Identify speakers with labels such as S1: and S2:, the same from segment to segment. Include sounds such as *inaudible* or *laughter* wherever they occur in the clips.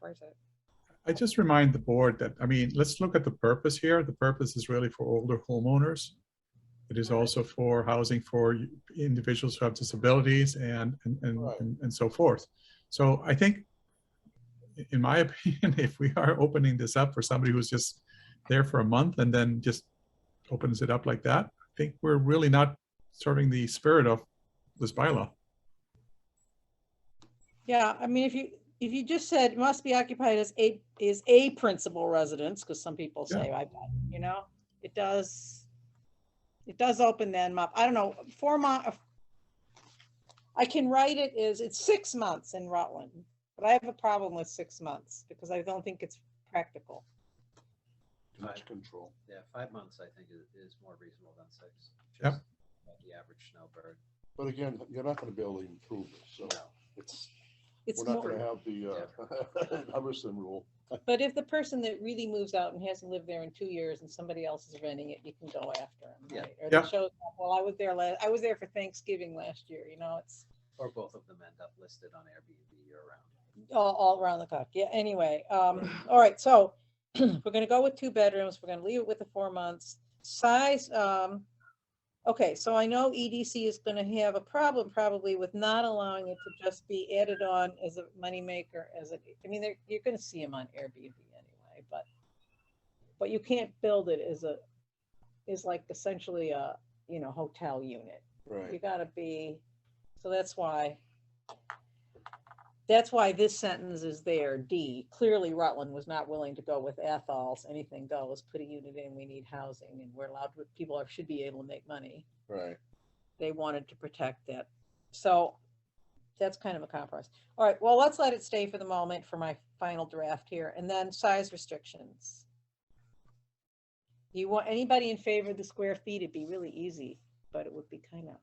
S1: worth it.
S2: I just remind the board that, I mean, let's look at the purpose here. The purpose is really for older homeowners. It is also for housing for individuals who have disabilities and, and,
S3: Right.
S2: and, and so forth. So I think, in my *laughs* opinion, if we are opening this up for somebody who's just there for a month and then just opens it up like that, I think we're really not serving the spirit of this bylaw.
S1: Yeah, I mean, if you, if you just said must be occupied as a, is a principal residence, because some people
S2: Yeah.
S1: say, I bet, you know, it does. It does open them up. I don't know, four month. I can write it as, it's six months in Rutland, but I have a problem with six months because I don't think it's practical.
S3: Too much control.
S4: Yeah, five months, I think, is, is more reasonable than six.
S2: Yep.
S4: just About the average snowbird.
S3: But again, you're not gonna be able to improve it, so
S4: No.
S3: it's,
S1: It's
S3: we're not
S1: more,
S3: gonna have the, uh, *laughs* Hubbardson rule.
S1: but if the person that really moves out and hasn't lived there in two years and somebody else is renting it, you can go after them,
S4: Yeah.
S1: right? Or
S2: Yeah.
S1: they show, up, well, I was there last, I was there for Thanksgiving last year, you know, it's.
S4: Or both of them end up listed on Airbnb year round.
S1: all, all around the clock. Yeah, anyway, um, all right, so *clears throat* we're gonna go with two bedrooms, we're gonna leave it with the four months. Size, um, okay, so I know EDC is gonna have a problem probably with not allowing it to just be added on as a moneymaker, as a, I mean, they're, you're gonna see them on Airbnb anyway, but but you can't build it as a, is like essentially a, you know, hotel unit you
S3: Right.
S1: gotta be, so that's why, that's why this sentence is there, D, clearly Rutland was not willing to go with Ethol's, anything goes, put a unit in, we need housing, and we're allowed, to- people are- should be able to make money.
S3: Right.
S1: They wanted to protect that, so that's kind of a compromise. All right, well, let's let it stay for the moment for my final draft here, and then size restrictions. You want, anybody in favor of the square feet, it'd be really easy, but it would be kind of.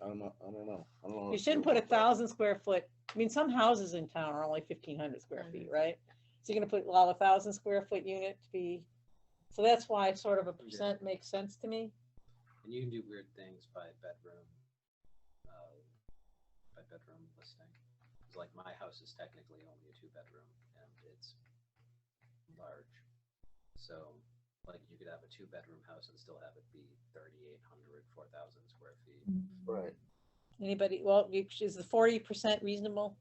S1: I don't know.
S3: I don't know, I don't know. I don't know.
S1: You shouldn't put a thousand square foot, I mean, some houses in town are only fifteen hundred square feet, right? So you're gonna put, allow a thousand square foot unit to be, so that's why sort of a percent makes sense to me.
S4: And you can do weird things by bedroom, uh, by bedroom listing. 'Cause, like my house is technically only a two bedroom and it's large. So like you could have a two bedroom house and still have it be 3,800, 4,000 square feet.
S1: Mm-hmm.
S3: Right,
S1: Anybody, well, you- is the forty percent reasonable?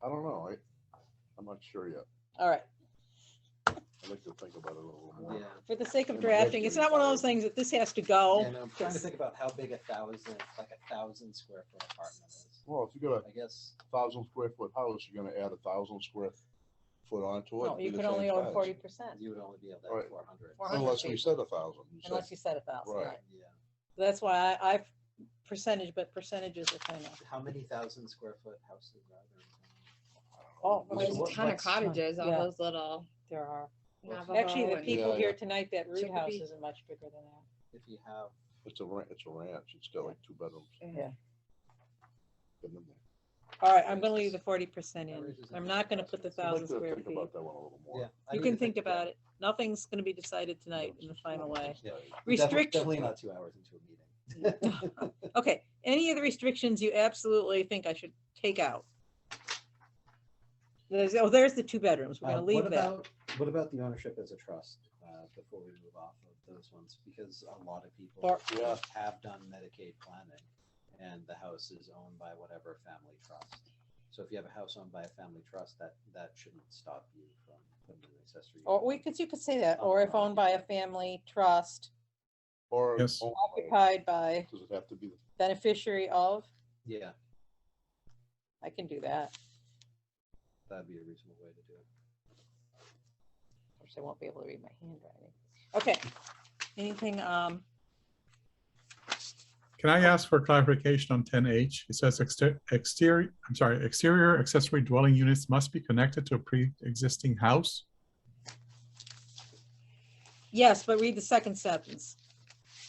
S3: I don't know, I, I'm not sure yet.
S1: All right,
S3: I'd like to think about it a little more.
S4: Yeah.
S1: for the sake of
S3: Yeah, but that's
S1: drafting, it's
S3: really
S1: not one of
S3: far.
S1: those things that this has to
S4: Yeah,
S1: go.
S4: no, I'm trying to
S1: just-
S4: think about how big a thousand, like a thousand square foot apartment is.
S3: Well, if you got
S4: I guess,
S3: a thousand square foot house, you're gonna add a thousand square foot onto it.
S1: No,
S3: be
S1: you
S3: the
S1: can
S3: same
S1: only own
S3: size.
S1: forty percent,
S4: you would only be able to
S3: Right.
S4: have four hundred.
S1: 400
S3: Unless we
S1: feet.
S3: said a thousand. you said-
S1: unless you said a thousand,
S3: Right.
S1: right?
S4: Yeah.
S1: That's why I, I, percentage, but percentages are kind of,
S4: How many thousand square foot houses are there?
S1: oh.
S3: There's
S1: wait,
S3: a
S5: There's
S3: what-
S5: a ton of
S3: what's-
S5: cottages, all
S1: yeah.
S5: those little
S1: There are.
S3: Navajo
S1: Actually, the
S5: Navajo.
S1: people
S3: Yeah,
S1: here
S3: yeah.
S1: tonight, that root house
S5: Chicopee.
S1: isn't much bigger than that.
S4: If you have,
S3: It's a ranch, it's a ranch, it's got like two bedrooms.
S1: Yeah.
S3: Been in there.
S1: All right, I'm gonna leave the forty percent
S4: That
S1: in.
S4: raises
S1: I'm
S4: an
S1: not gonna put the
S4: interesting
S3: I'd like
S1: thousand
S3: to
S1: square
S3: think
S1: feet.
S3: about that one a little more.
S4: yeah. I
S1: You
S4: need
S1: can
S4: to
S1: think about
S4: it.
S1: it. Nothing's gonna be decided tonight in the final way.
S4: Yeah. Defi-
S1: Restrict-
S4: Definitely not two hours into a meeting.
S1: Okay, any of the restrictions you absolutely think I should take out? There's, oh, there's the two bedrooms. We're
S4: Uh,
S1: gonna
S4: what
S1: leave that.
S4: about- What about the ownership as a trust, uh, before we move off of those ones? Because a lot of people
S1: Or-
S3: Yeah.
S4: have done Medicaid planning and the house is owned by whatever family trust. So if you have a house owned by a family trust, that, that shouldn't stop you from putting an accessory.
S1: Or
S4: unit.
S1: we could, you could say that, or if owned by a family trust
S3: Or.
S2: Yes.
S3: owned by-
S1: occupied by
S3: Does it have to be, the-
S1: beneficiary of,
S4: Yeah,
S1: I can do that.
S4: that'd be a reasonable way to do it.
S1: Of course, I won't be able to read my handwriting. Okay, anything, um,
S2: Can I ask for clarification on ten H? It says exter- exterior, I'm sorry, exterior accessory dwelling units must be connected to a pre-existing house.
S1: yes, but read the second sentence.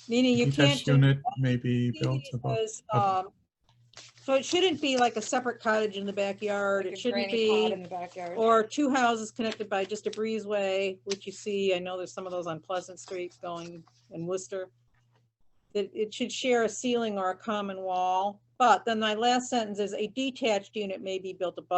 S1: Meaning you
S2: Detached
S1: can't. do-
S2: Unit may be built
S1: It
S2: above.
S1: says, um, So it shouldn't be like a separate cottage in the backyard,
S5: like
S1: it
S5: a
S1: shouldn't
S5: granny pod
S1: be,
S5: In the backyard.
S1: or two houses connected by just a breezeway, which you see, I know there's some of those on Pleasant Street going in Worcester. That it should share a ceiling or a common wall, but then my last sentence is a detached unit may be built above